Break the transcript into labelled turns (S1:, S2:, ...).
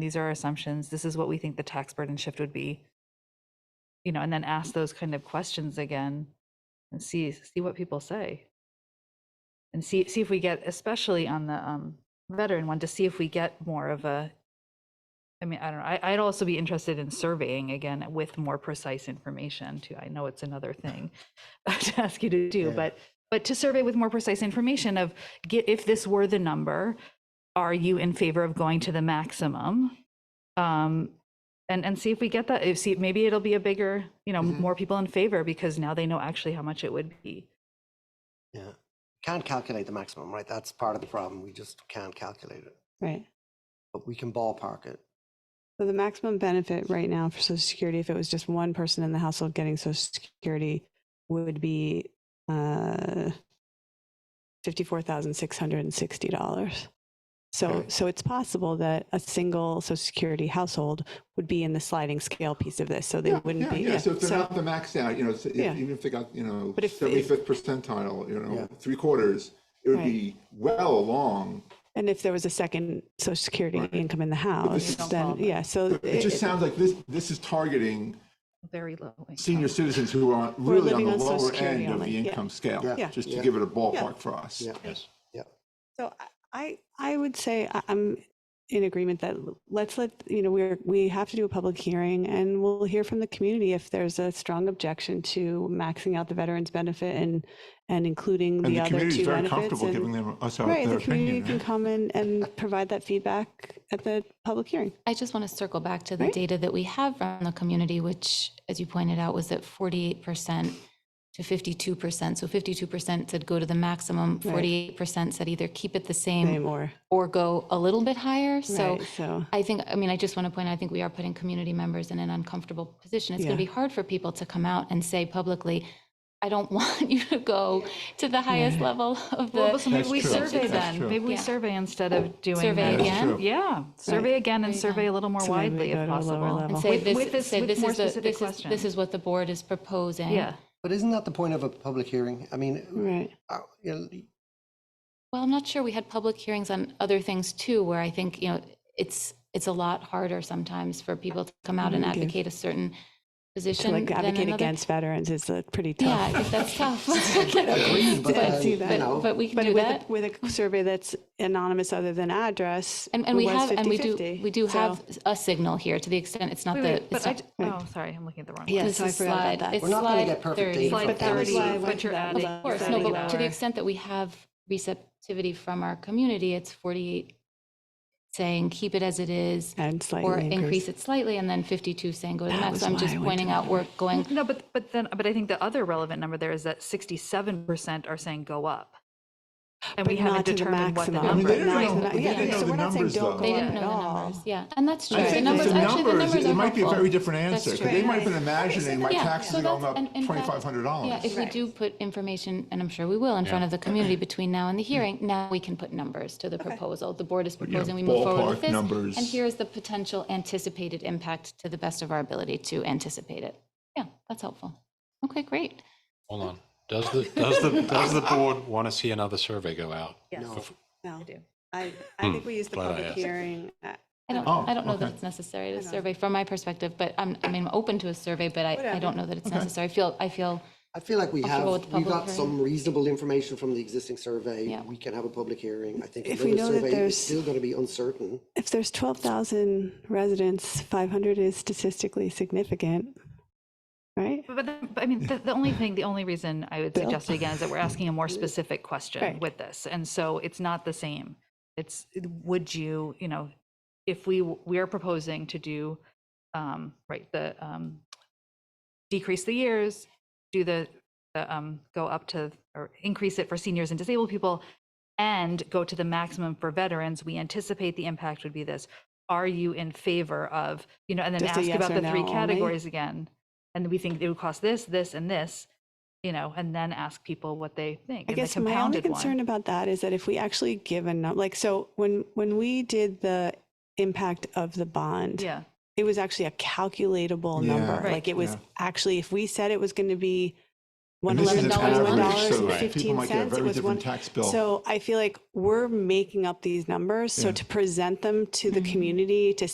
S1: these are our assumptions, this is what we think the tax burden shift would be. You know, and then ask those kind of questions again and see, see what people say. And see, see if we get, especially on the um, veteran one, to see if we get more of a, I mean, I don't know, I, I'd also be interested in surveying again with more precise information too. I know it's another thing to ask you to do,
S2: Yeah.
S1: but, but to survey with more precise information of get, if this were the number, are you in favor of going to the maximum? Um, and, and see if we get that, if, see, maybe it'll be a bigger, you know,
S2: Mhm.
S3: Mm-hmm.
S1: more people in favor because now they know actually how much it would be.
S2: Yeah. Can't calculate the maximum, right? That's part of the problem. We just can't calculate it,
S4: Right.
S2: but we can ballpark it.
S4: So the maximum benefit right now for Social Security, if it was just one person in the household getting Social Security, would be uh, fifty-four thousand six hundred and sixty dollars. So,
S2: Okay.
S4: so it's possible that a single Social Security household would be in the sliding scale piece of this. So they
S3: Yeah,
S4: wouldn't
S3: yeah,
S4: be.
S3: Yeah, so if they're
S4: So-
S3: not the max out, you know, so if-
S4: Yeah.
S3: even if they got, you know,
S4: But if-
S3: seventy-fifth percentile, you
S2: Yeah.
S3: know, three quarters, it would
S4: Right.
S3: be well along.
S4: and if there was a second Social Security
S3: Right.
S4: income in the house,
S1: don't
S4: then
S1: qualify.
S4: yeah. So
S3: But It
S4: it-
S3: just sounds like this, this is targeting
S1: Very low. income.
S3: senior citizens who are really on
S4: living
S3: the
S4: on Social
S3: lower
S4: Security
S3: end of
S4: only,
S3: the
S4: yeah.
S3: income scale,
S2: Yeah.
S4: Yeah.
S3: just to
S2: Yeah.
S3: give it a ballpark for us.
S2: Yeah.
S3: Yes.
S4: So I- I, I would say I- I'm in agreement that l- let's let, you know, we're, we have to do a public hearing and we'll hear from the community if there's a strong objection to maxing out the veterans benefit and, and including
S3: And
S4: the
S3: the
S4: other
S3: community
S4: two
S3: is very
S4: benefits.
S3: comfortable giving
S4: and-
S3: them, us our
S4: Right,
S3: their
S4: the community
S3: opinion.
S4: can
S3: right?
S4: come in and provide that feedback at the public hearing.
S5: I just want to circle back to the
S4: Right.
S5: data that we have from the community, which, as you pointed out, was at 48% to 52%. So 52% said go to the maximum,
S4: Right.
S5: 48% said either keep it the
S4: Same
S5: same
S4: or,
S5: or go a little bit higher. So
S4: right, so,
S5: I think, I mean, I just want to point out, I think we are putting community members in an uncomfortable position. It's going to
S4: Yeah.
S5: be hard for people to come out and say publicly, I don't want you to go to the highest level of
S1: Well,
S5: the.
S1: so maybe
S3: That's
S1: we
S3: true.
S1: survey
S3: That's
S1: then,
S3: true.
S1: maybe we
S5: Yeah.
S1: survey instead of doing.
S5: Survey
S1: the-
S3: That's
S5: again?
S3: true.
S1: Yeah, survey again and
S5: Survey
S1: survey a little more
S4: So maybe we
S1: widely
S4: go
S1: if
S4: to a lower
S1: possible.
S4: level.
S5: And say
S1: With- with
S5: this,
S1: this-
S5: say
S1: with
S5: this
S1: more
S5: is the,
S1: specific
S5: this is, this
S1: question.
S5: is what the board is proposing.
S1: Yeah,
S2: But isn't that the point of a public hearing? I mean,
S4: right.
S2: uh, you know,
S5: Well, I'm not sure. We had public hearings on other things too, where I think, you know, it's, it's a lot harder sometimes for people to come out and
S4: Okay.
S5: advocate a certain
S4: Mm-hmm. To
S5: position
S4: like
S5: than
S4: advocate
S5: another.
S4: against veterans is a pretty
S5: Yeah,
S4: tough.
S5: I think that's tough.
S2: agree, but,
S4: I
S2: uh,
S4: see
S2: you
S4: that.
S2: know,
S5: But, but we can
S4: But
S5: do
S4: with,
S5: that.
S4: a- with a survey that's anonymous other than address.
S5: And, and we
S4: was
S5: have, and we do,
S4: 50-50,
S5: we do
S4: so-
S5: have a signal here to the extent it's not
S1: Wait,
S5: the,
S1: wait,
S5: it's
S1: but I,
S5: not.
S1: j- oh, sorry, I'm looking at the wrong.
S4: Yeah.
S1: one.
S5: This
S4: so I
S5: is
S4: forgot about
S5: slide-
S4: that.
S5: it's
S2: We're not gonna
S5: slide
S2: get perfect
S5: 30.
S2: data
S1: Slide
S2: But that was
S1: 30,
S2: why I
S4: went
S1: but
S4: to
S1: you're
S4: that
S1: adding.
S4: level.
S5: Of course,
S4: Exactly.
S5: no, but
S4: Lower.
S5: to the extent that we have receptivity from our community, it's 48 saying keep it as it is
S4: And slightly
S5: or increase it slightly, and then 52 saying go to the
S4: That
S5: max.
S4: was
S5: So I'm
S4: why
S5: just
S4: I went
S5: pointing
S4: to
S5: out we're going
S1: No, but, but then, but I think the other relevant number there is that sixty-seven percent are saying go up. And we
S4: But not
S1: haven't
S4: to the
S1: determined what the
S4: maximum.
S3: I mean,
S1: number
S3: they
S1: is.
S4: Not to the- yeah,
S3: didn't know, they didn't
S4: so
S3: know the
S4: we're not saying
S3: numbers
S4: don't
S3: though.
S4: go
S5: They
S4: up
S5: didn't
S4: at
S5: know the
S4: all.
S5: numbers, yeah, and that's true.
S3: I
S5: The
S3: think
S5: numbers,
S3: the
S5: actually, the
S3: numbers,
S5: numbers are
S3: it might be a
S5: helpful.
S3: very different answer,
S5: That's
S3: because they
S5: true.
S3: might have been imagining my
S5: Yeah,
S3: taxes
S5: so
S3: are going
S5: that's-
S3: up
S5: and in fact-
S3: twenty-five hundred
S5: Yeah, if
S3: dollars.
S5: we do put information, and I'm sure we will, in front of the community between now and the hearing, now we can put numbers to the proposal. The board is
S3: you know,
S5: proposing, we move forward
S3: ballpark
S5: with this.
S3: numbers.
S5: And here is the potential anticipated impact to the best of our ability to anticipate it. Yeah, that's helpful. Okay, great.
S6: Hold on. Does the, does the, does the board want to see another survey go out?
S4: No,
S1: do.
S4: I, I think we use the
S6: Glad I
S4: public
S6: asked.
S4: hearing. uh,
S5: I don't,
S3: Oh,
S5: I don't know that
S3: okay.
S5: it's necessary to
S4: know.
S5: survey from my perspective, but I'm, I mean, I'm open to a survey, but I, I
S4: Whatever.
S5: don't know that it's necessary. I feel, I feel,
S2: I feel like we have,
S5: Comfortable with the
S2: we
S5: public
S2: got some reasonable information from the existing survey.
S5: Yeah.
S2: We can have a public hearing. I think
S4: If we
S2: another
S4: know that
S2: survey
S4: there's-
S2: is still going to be uncertain.
S4: If there's 12,000 residents, 500 is statistically significant, right?
S1: But, then- but I mean, the, the only thing, the only reason I would
S4: Bill?
S1: suggest it again is that we're asking a more specific question
S4: Right.
S1: with this. And so it's not the same. It's, would you, you know, if we, w- we are proposing to do, um, right, the, um, decrease the years, do the, the, um, go up to, or increase it for seniors and disabled people and go to the maximum for veterans, we anticipate the impact would be this. Are you in favor of, you know, and then
S4: Just a
S1: ask
S4: yes
S1: about
S4: or
S1: the three
S4: no only?
S1: categories again? And we think it would cost this, this, and this, you know, and then ask people what they think. and
S4: I
S1: the
S4: guess my only
S1: compounded one.
S4: concern about that is that if we actually give a number, like, so when, when we did the impact of the bond,
S1: Yeah,
S4: it was actually a calculatable
S3: Yeah.
S4: number.
S1: Right.
S4: Like it was
S3: Yeah.
S4: actually, if we said it was going to be one
S3: And this is
S4: eleven
S3: an
S4: dollars, one
S3: average,
S4: dollars
S3: so
S4: and
S6: right.
S3: people
S4: fifteen
S3: might get a
S4: cents, it
S3: very
S4: was one.
S3: different tax bill.
S4: So I feel like we're making up these numbers. So
S3: Yeah.
S4: to present them to the
S5: Mhm.
S4: community to